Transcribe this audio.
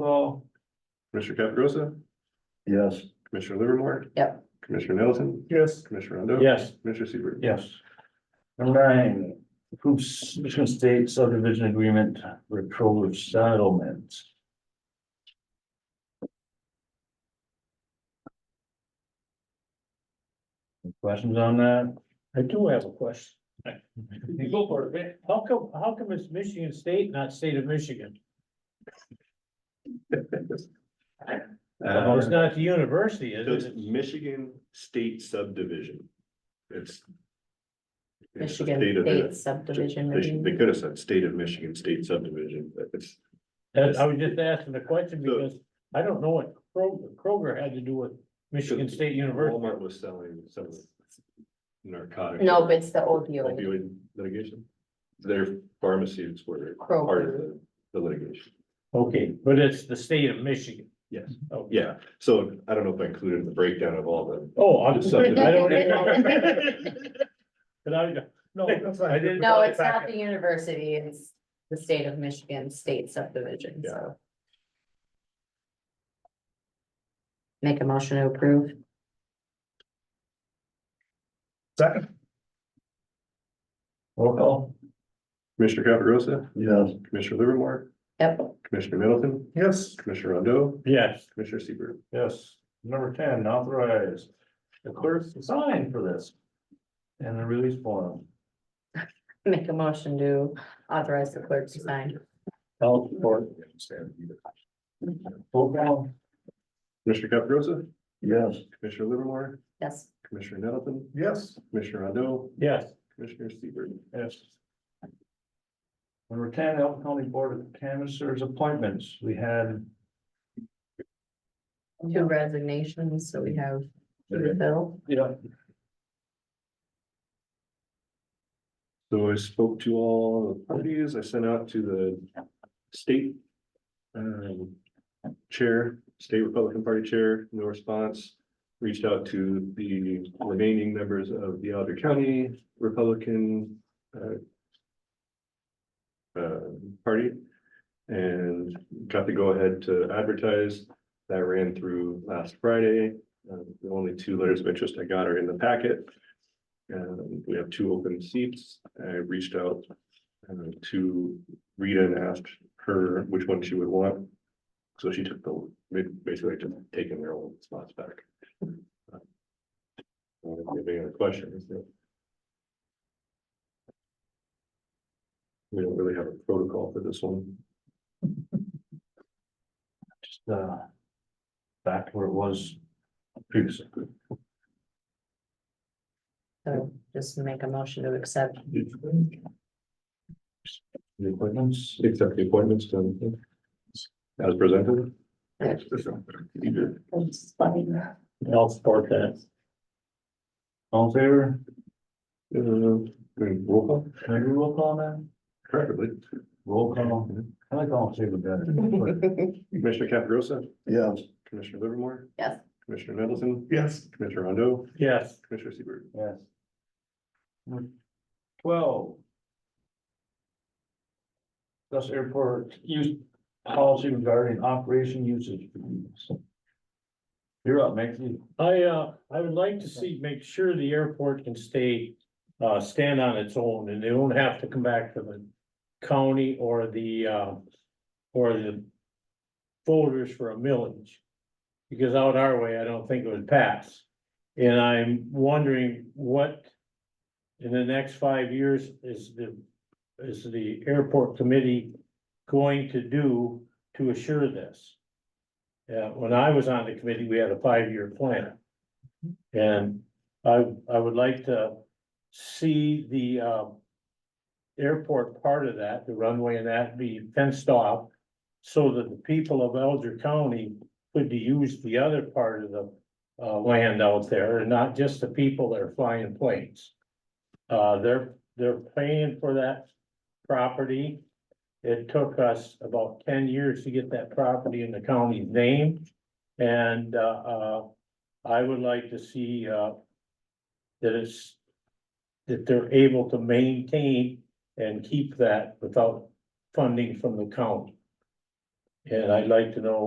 Well, Commissioner Caprosa, Yes. Commissioner Livermore. Yep. Commissioner Nelson, yes, Commissioner Rondo. Yes. Commissioner Seaver. Yes. Number nine, approves Michigan State subdivision agreement for Troller settlement. Any Questions on that? I do have a question. You go for it. How come, how come it's Michigan State, not state of Michigan? Well, it's Uh, not the university, so is it? it's Michigan State Subdivision. It's. it's the Michigan state of State the- subdivision. They should- review. they could have said State of Michigan State Subdivision, but it's, That- I was just asking the question So- because I don't know what Kroger, Kroger had to do with Michigan State University. Walmart was selling some narcotic. No, but it's the opioid. Opioid litigation. Their pharmacies were part of Kroger. the- the litigation. Okay, but it's the state of Michigan. Yes. Oh, Yeah, so I don't know if I included in the breakdown of all the. Oh, I'm sorry, I don't. But I, no, that's not. I didn't- No, it's not the university, it's the state of Michigan State subdivision, Yeah. so. Make a motion to approve. Second, Roll call? Commissioner Caprosa, Yes. Commissioner Livermore, Yep, Commissioner Middleton, yes, Commissioner Rondo, yes. Commissioner Seaver. Yes. Number ten, authorize the clerk's sign for this. And the release form. make a motion to authorize the clerk to sign. All support. Roll call? Commissioner Caprosa, Yes. Commissioner Livermore, Yes, Commissioner Middleton, yes, Commissioner Rondo, Yes, Commissioner Seaver. Yes. Number ten, Elton County Board of Canvassers appointments, we had. two resignations, so we have two to fill. Yeah. So I spoke to all the parties, I sent out to the state. Um, chair, state Republican Party chair, no response. Reached out to the remaining members of the Alger County Republican, uh. uh, party. And got to go ahead to advertise, that ran through last Friday. Uh, the only two letters of interest I got are in the packet. And Uh, we have two open seats. I reached out uh, to Rita and asked her which one she would want. So she took the, basically just taking their old spots back. Uh, If you have any other questions. but- We don't really have a protocol for this one. Just, uh. Back where it was previously. So just make a motion to accept. The appointments, Except the appointments done. As presented. Yes. I'll support that. all in favor, Uh, roll call, can I do roll call then? preferably. Roll call, I like all in favor better. Commissioner Caprosa, Yes. Commissioner Livermore, Yes, Commissioner Middleton, yes, Commissioner Rondo, Yes, Commissioner Seaver. Yes. Number Twelve. Thus airport use policy regarding operation usage. agreements. You're up, Maxie. I, uh, I would like to see, make sure the airport can stay, uh, stand on its own and they don't have to come back to the county or the, uh, or the voters for a millage. Because out our way, I don't think it would pass. And I'm wondering what in the next five years is the, is the airport committee going to do to assure this? Yeah, when I was on the committee, we had a five-year plan. And I, I would like to see the, uh. Airport part of that, the runway and that be fenced off. So that the people of Elder County could use the other part of the, uh, land out there and not just the people that are flying planes. Uh, they're, they're paying for that property. It took us about ten years to get that property in the county's name. And, uh, uh, I would like to see, uh, that it's, that they're able to maintain and keep that without funding from the county. And I'd like to know